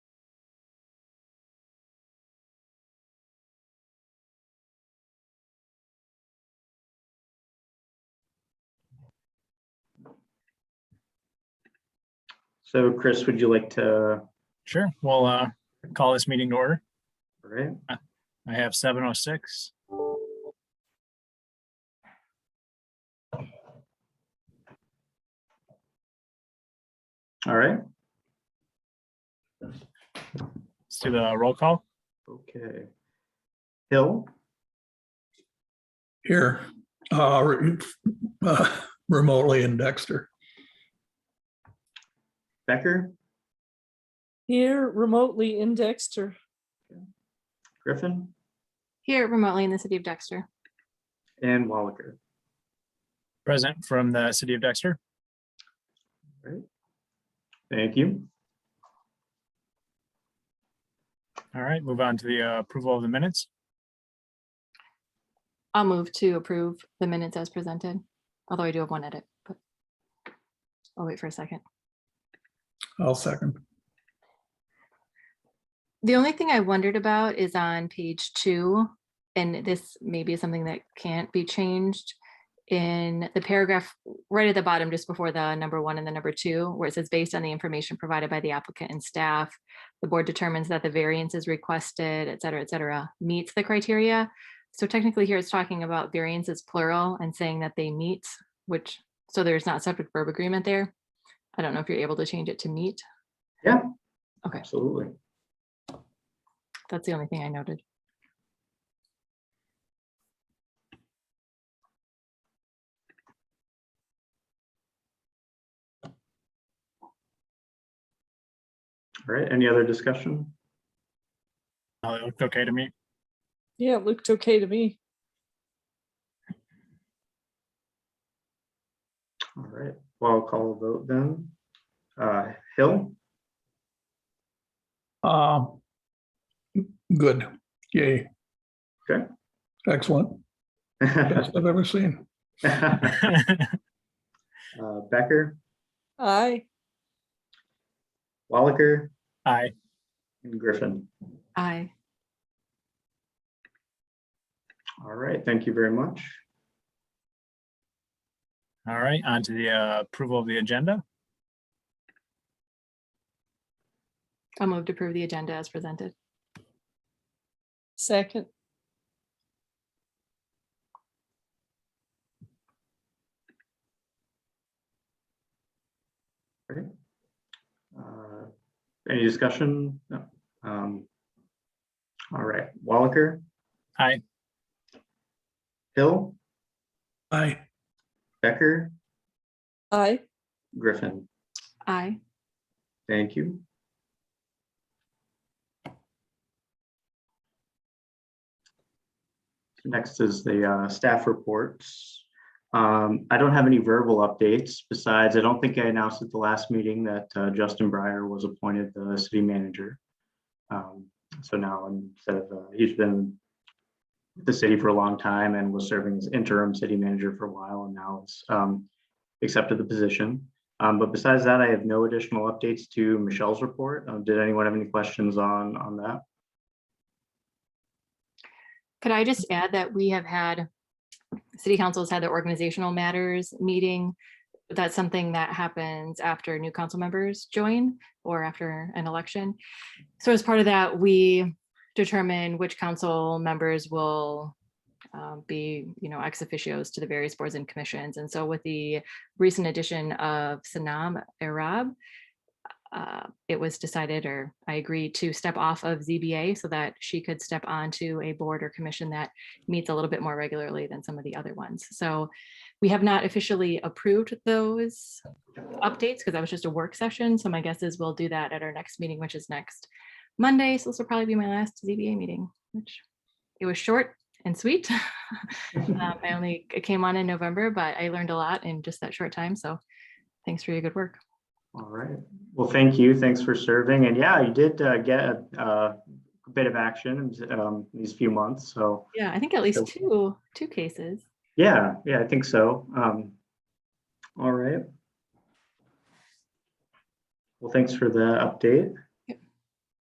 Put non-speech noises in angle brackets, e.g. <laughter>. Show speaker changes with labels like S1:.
S1: So Chris, would you like to, all
S2: Sure, we'll uh, call this meeting to order.
S1: right?
S2: I have seven oh six.
S1: All right,
S2: Let's do the roll call.
S1: okay. Hill,
S3: Here, uh, re- uh, remotely in Dexter.
S1: Becker,
S4: Here remotely in Dexter.
S1: Griffin,
S5: Here remotely in the city of Dexter.
S1: and Wallaker.
S2: Present from the city of Dexter.
S1: Thank you.
S2: All right, move on to the uh, approval of the minutes.
S5: I'll move to approve the minutes as presented, although I do have one edit, but I'll wait for a second.
S3: I'll second.
S5: The only thing I wondered about is on page two, and this may be something that can't be changed. In the paragraph right at the bottom, just before the number one and the number two, where it says, based on the information provided by the applicant and staff, the board determines that the variance is requested, et cetera, et cetera, meets the criteria. So technically here it's talking about variances plural and saying that they meet, which, so there's not subject verb agreement there. I don't know if you're able to change it to meet.
S1: Yeah.
S5: Okay.
S1: Absolutely.
S5: That's the only thing I noted.
S1: All right, any other discussion?
S2: Uh, It looked okay to me. <laughs>
S4: Yeah, it looked okay to me.
S1: All right, well, I'll call a vote then. Uh, Hill, <laughs>
S3: Uh, Good, yay.
S1: Okay.
S3: Excellent, best I've ever seen.
S1: Uh, Becker,
S4: Aye.
S1: Wallaker,
S2: Aye.
S1: and Griffin.
S5: Aye.
S1: All right, thank you very much.
S2: All right, on to the uh, approval of the agenda.
S5: I'll move to approve the agenda as presented.
S4: Second.
S1: All right. Uh, Any discussion? No. Um, All right, Wallaker,
S2: Aye.
S1: Hill,
S3: Aye,
S1: Becker,
S4: Aye.
S1: Griffin,
S5: Aye.
S1: thank you. Next is the uh, staff reports. Um, I don't have any verbal updates besides, I don't think I announced at the last meeting that uh, Justin Breyer was appointed the city manager. Um, So now instead of, uh, he's been with the city for a long time and was serving as interim city manager for a while and now has um, accepted the position. Um, but besides that, I have no additional updates to Michelle's report. Uh, did anyone have any questions on, on that?
S5: Could I just add that we have had, city council's had the organizational matters meeting. That's something that happens after new council members join or after an election. So as part of that, we determine which council members will um, be, you know, ex officios to the various boards and commissions. And so with the recent addition of Sanam Arab, uh, it was decided, or I agreed to step off of ZBA so that she could step onto a board or commission that meets a little bit more regularly than some of the other ones. So we have not officially approved those updates because that was just a work session. So my guess is we'll do that at our next meeting, which is next Monday. So this will probably be my last ZBA meeting, which it was short and sweet. <laughs> Um, <laughs> I only came on in November, but I learned a lot in just that short time. So thanks for your good work.
S1: All right. Well, thank you. Thanks for serving. And yeah, you did uh, get a, uh, bit of action um, these few months. So
S5: Yeah, I think at least
S1: Okay.
S5: two, two cases.
S1: yeah, yeah, I think so. Um, all right. Well, thanks for the update.